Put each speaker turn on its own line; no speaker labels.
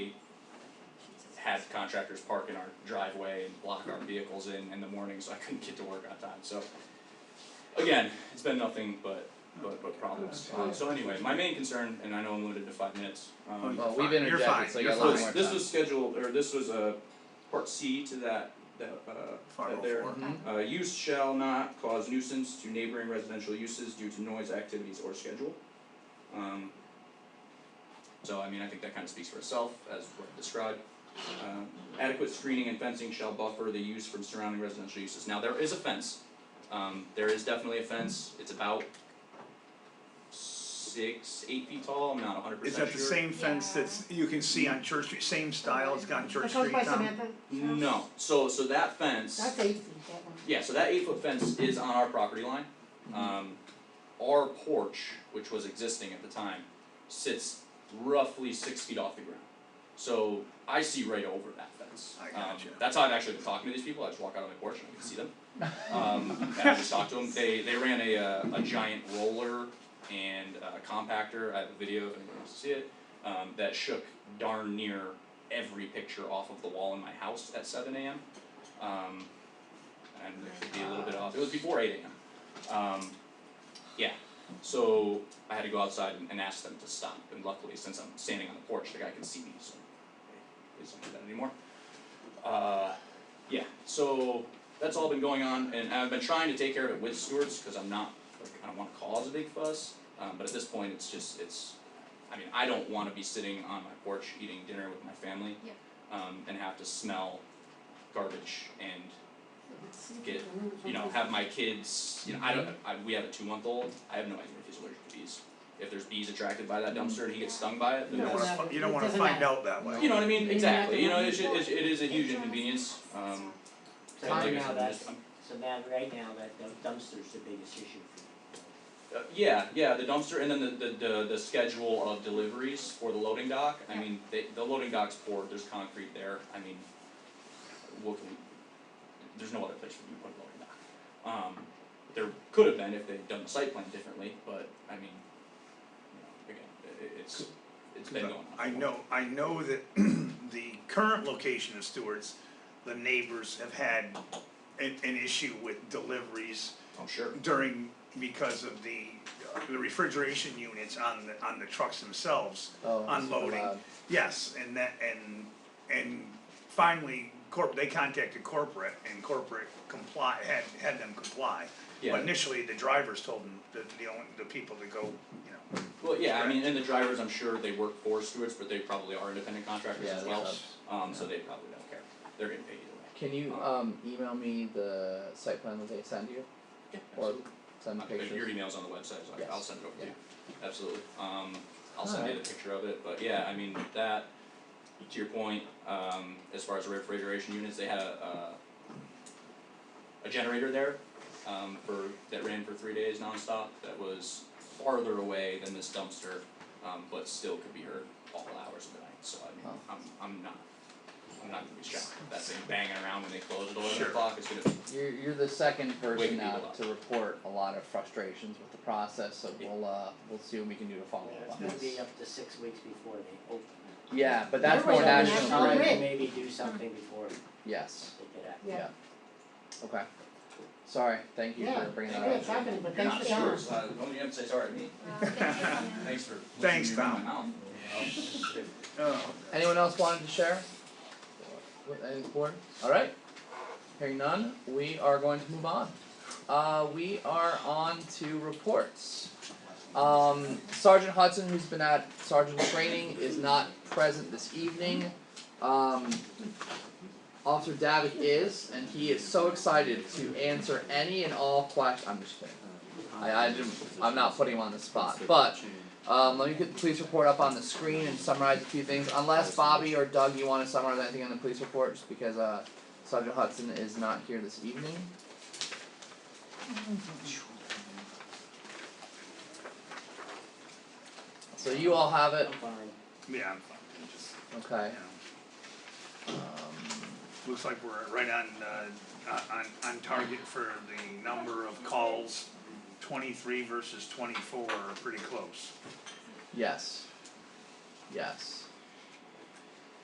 had contractors park in our driveway and block our vehicles in in the morning, so I couldn't get to work on time, so. Again, it's been nothing but but but problems, Um, so anyway, my main concern, and I know I'm limited to five minutes, um,
Well,
You're
we've
fine, you're fine,
interjected, so you
you're
got a lot
this
more
this
time.
was scheduled, or this was a part C to that that uh
Five
that
oh
there.
four.
Uh, use shall not cause nuisance to neighboring residential uses due to noise, activities, or schedule. Um, so I mean, I think that kind of speaks for itself as what described. Um, adequate screening and fencing shall buffer the use from surrounding residential uses. Now, there is a fence. Um, there is definitely a fence. It's about six, eight feet tall. I'm not hundred
Is
percent
that
sure.
the same fence
Yeah.
that's, you can see on Church Street, same style it's got on Church
That goes
Street,
by
Tom?
Samantha?
No. So so that fence.
That's eight feet, that one.
Yeah, so that eight foot fence is on our property line. Um, our porch, which was existing at the time, sits roughly six feet off the ground. So I see right over that fence.
I
Um,
gotcha.
That's how I've actually been talking to these people, I just walk out on my porch and I can see them. Um, and I just talk to them, they, they ran a, uh, a giant roller and a compactor, I have a video if anyone wants to see it. Um, that shook darn near every picture off of the wall in my house at seven AM. Um, and it could be a little bit off, it was before eight AM. Um, yeah, so I had to go outside and, and ask them to stop, and luckily, since I'm standing on the porch, the guy can see me, so he doesn't do that anymore. Uh, yeah, so that's all been going on, and I've been trying to take care of it with stewards, cause I'm not, like, I don't wanna cause a big fuss, um, but at this point, it's just, it's, I mean, I don't wanna be sitting on my porch eating dinner with my family.
Yeah.
Um, and have to smell garbage and Get-
Mhm.
you know, have my kids, you know, I don't, I, we have a two month old, I have no idea if he's allergic to bees. If there's bees attracted by that dumpster and he gets stung by it,
You
then
don't
No,
that's,
wanna,
no.
fi- you
It
don't wanna
doesn't
find
matter.
out that way.
you know what I mean,
Maybe
exactly, you know,
not the
it's,
one
it, it is a huge inconvenience, um.
So
like I
right
said,
now, um,
I'm
that's,
just- I'm-
so now, right now, that dump- dumpster's the biggest issue for you.
Uh, yeah, yeah, the dumpster and then the, the, the, the schedule of deliveries for the loading dock, I mean, they, the loading dock's poured, there's concrete there, I mean, what can we, there's no other place for you to put a loading dock. Um, there could have been if they'd done the site plan differently, but I mean, you know, again, i- i- it's, it's been going on.
I
for a
know, I know that the current location of Stewart's, the neighbors have had an, an issue with deliveries
while. I'm sure,
during, because of the, uh, the refrigeration units on the, on the trucks themselves.
Oh, it's
unloading.
allowed.
Yes, and that, and, and finally, corp, they contacted corporate and corporate comply, had, had them comply.
yeah.
But initially, the drivers told them, the, the only, the people to go, you know,
Well, yeah, I mean, and the drivers, I'm sure they work for Stewart's, but they probably are independent contractors
Yeah,
as
they
well,
subs.
um, so they probably don't care, they're getting paid either
Can you um email me the site plan that they send you
way. Yeah,
or
absolutely.
send me
Uh, Your
pictures?
email's on the website, so I- I'll
Yes.
send it over to
Yeah.
you, absolutely, um, I'll send you the picture of it, but yeah, I mean, that, to your point, um, as far as refrigeration units, they had a, uh, a a generator there, um, for, that ran for three days nonstop, that was farther away than this dumpster, um, but still could be heard all hours of the night, so I mean,
Oh.
I'm, I'm not, I'm not gonna be shocked, if that thing banging around when they close at eleven
Sure.
o'clock, it's gonna
You're you're the second person
Waking
now
people up.
to report a lot of frustrations with the process, so we'll uh we'll see what we can do to follow
It's
up on
gonna
this.
be up to six weeks before they open.
Yeah, but that's more
Everybody's on
national,
national
right?
grid.
Time to maybe do something before they
Yes,
get out.
Yeah,
okay. Sorry, thank you
yeah,
for bringing that
yeah,
up.
it's happening, but
You're
thanks
not
for
sure, Uh,
telling
so I- don't you emphasize sorry to me. Thanks for
Thanks,
listening to me run
Tom.
my mouth.
oh.
Anyone else wanted to share? With any board? Alright, hearing none, we are going to move on. Uh, we are on to reports. Um, Sergeant Hudson, who's been at sergeant training, is not present this evening. Um, Officer Davik is, and he is so excited to answer any and all questions. I'm just kidding. I, I didn't, I'm not putting him on the spot, but um, let me get the police report up on the screen and summarize a few things, unless Bobby or Doug, you wanna summarize anything on the police report, just because, uh, Sergeant Hudson is not here this evening. So you all have it,
I'm fine.
Yeah, I'm fine, it just, you
okay,
know,
um,
looks like we're right on, uh, on- on, on target for the number of calls. Twenty-three versus twenty-four are pretty close.
yes. Yes,